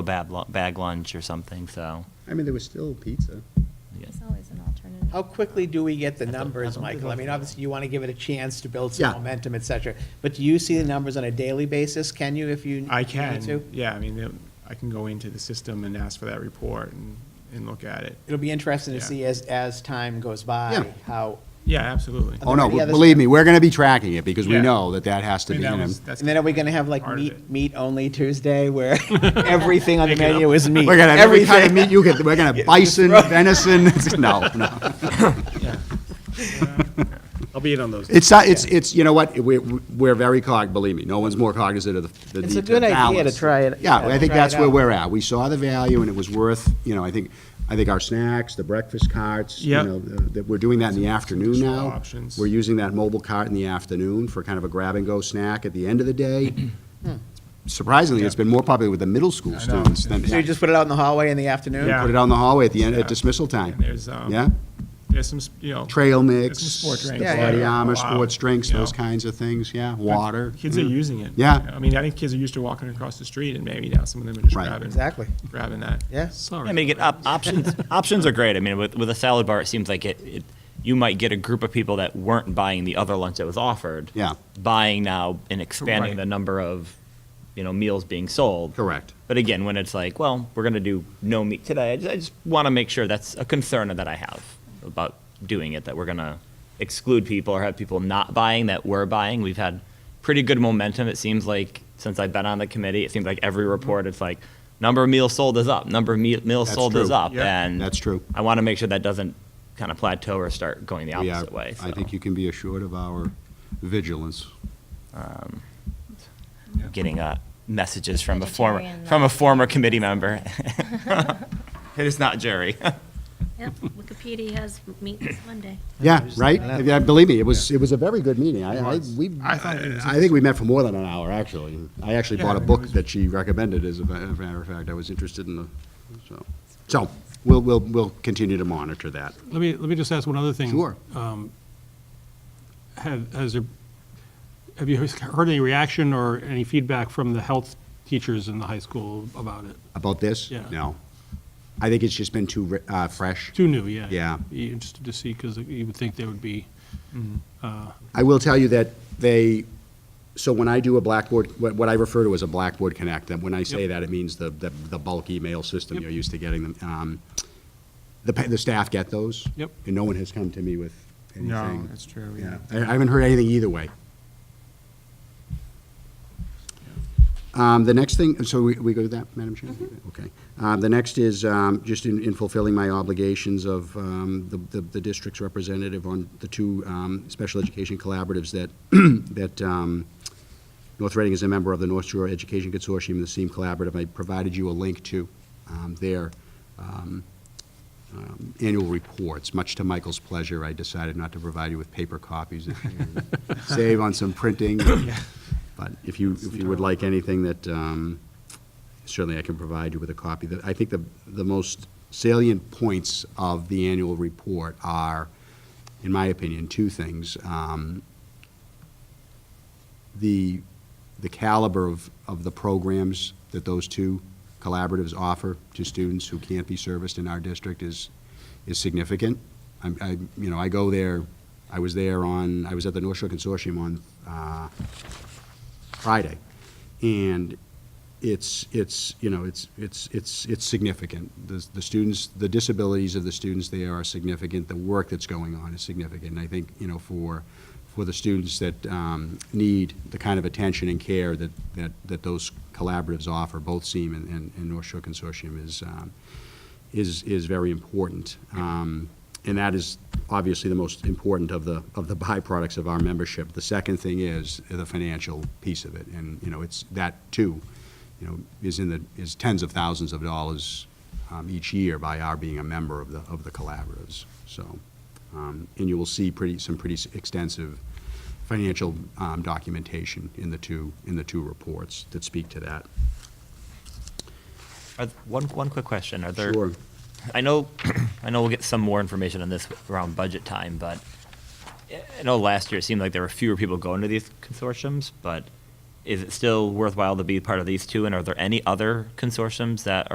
a bad lu- bag lunch or something, so. I mean, there was still pizza. yeah. There's always an alternative. How quickly do we get the I don't- I don't numbers, think Michael? I I've- mean, obviously, you want to give it a chance to build some Yeah. momentum, et cetera. But do you see the numbers on a daily basis? Can you, if you? I need can, to? yeah, I mean, the- I can go into the system and ask for that report and, and look at it. It'll be interesting to Yeah. see as, as time goes Yeah. by, how, Yeah, absolutely. Are Oh, there no, any b- other believe stuff? me, we're going to be tracking it because we Yeah. know that that has to I mean, be that in them. was- that's and then are we going to have like part of meat, it. meat only Tuesday where everything on the menu is meat? We're going to have every kind of Everything. meat you could, we're going to bison, venison, no, no. I'll be in on those. It's, uh, it's, it's, you know what, we're, we're very cog, believe me, no one's more cognizant of the- the need It's to a good idea to balance. try it- Yeah, yeah, I think try that's it where out. we're at. We saw the value and it was worth, you know, I think, I think our snacks, the breakfast carts, you Yep. know, the- that, we're doing that in the afternoon Small now. options. We're using that mobile cart in the afternoon for kind of a grab-and-go snack at the end of the day. Surprisingly, it's been more popular with the middle school Hmm. I know. students than. So you just put it out in the hallway in the afternoon? Yeah. Put it out in the hallway at the end, at Yeah. dismissal time. And there's, um, Yeah? There's some, s- you know. Trail there's mix. some sport drinks. Yeah, yeah, Body yeah. armor, Wow. sports drinks, You those know, kinds of things, yeah, water. Mm. Kids are yeah. using it. Yeah. I mean, I think kids are used to walking across the street and maybe now some of them are just Right. grabbing. Exactly. Grabbing that. Yeah. Sorry. I mean, get op- options. options are great. I mean, with with a salad bar, it seems like it, it. You might get a group of people that weren't buying the other lunch that was offered. Yeah. Buying now and expanding Right. the number of, you know, meals being sold. Correct. But again, when it's like, well, we're going to do no meat today, I just, I just want to make sure that's a concern that I have about doing it. That we're going to exclude people or have people not buying that were buying. We've had pretty good momentum. It seems like since I've been on the committee, it seems like every report, it's like number of meals sold is up, number of me- meals That's sold is true. up, Yeah, and that's true. I want to make sure that doesn't kind of plateau or start going the We opposite are- way. I so, think you can be assured of our vigilance. um, getting uh, messages from a Vegetarian former from a lunch. former committee member. it is not Jerry. Yep, Wikipedia has meet this Monday. Yeah, right? I know. Yeah, believe me, it was, it was a very good meeting. I, I, we, I thought it was I think we met for more than an hour, actually. I actually Yeah, bought I a mean, it book was- that she recommended, as a ma- as a matter of fact. I was interested in the, so. So, we'll, we'll, we'll continue to monitor that. Let me, let me just ask one other thing. Sure. Um, Have, has there, have you heard any reaction or any feedback from the health teachers in the high school about it? About this? Yeah. No. I think it's just been too, ri- uh, fresh. Too new, yeah. Yeah. Be Interested to see, because you would think they would be, Mm-hmm. I will tell you that they, so when I do a Blackboard, what, what I refer to as a Blackboard Connect, and when I say Yep. that, it means the, the, the bulk email system Yep. you're used to getting them. Um, the, pa- the staff get those. Yep. And no one has come to me with anything. No, that's true, yeah. I, I haven't heard anything either way. Um, the next thing, so we, we go to that, Madam Chair? Okay. Um, the next is, um, just in, in fulfilling my obligations of, um, the, the, the district's representative on the two, um, special education collaboratives that, that, um, North Reading is a member of the North Shore Education Consortium, the SEAM Collaborative. I provided you a link to, um, their, um, um, annual reports. Much to Michael's pleasure, I decided not to provide you with paper copies. this year. Save on some printing. But if you, if you would like anything that, um, certainly I can provide you with a copy. The- I think the, the most salient points of the annual report are, in my opinion, two things. Um, The, the caliber of, of the programs that those two collaboratives offer to students who can't be serviced in our district is, is significant. I'm, I, you know, I go there, I was there on, I was at the North Shore Consortium on, uh, Friday. And it's, it's, you know, it's, it's, it's, it's significant. The, the students, the disabilities of the students there are significant, the work that's going on is significant. And I think, you know, for, for the students that um, need the kind of attention and care that, that, that those collaboratives offer, both SEAM and, and- and North Shore Consortium is, um, is, is very important. Um, And that is obviously the most important of the, of the byproducts of our membership. The second thing is the financial piece of it, and, you know, it's, that too, you know, is in the, is tens of thousands of dollars um, each year by our being a member of the, of the collaboratives, so. um, And you will see pretty, some pretty extensive financial um, documentation in the two, in the two reports that speak to that. Are th- One, one quick question. Are there? Sure. I know, I know we'll get some more information on this around budget time, but I know last year it seemed like there were fewer people going to these consortiums, but is it still worthwhile to be part of these two? And are there any other consortiums that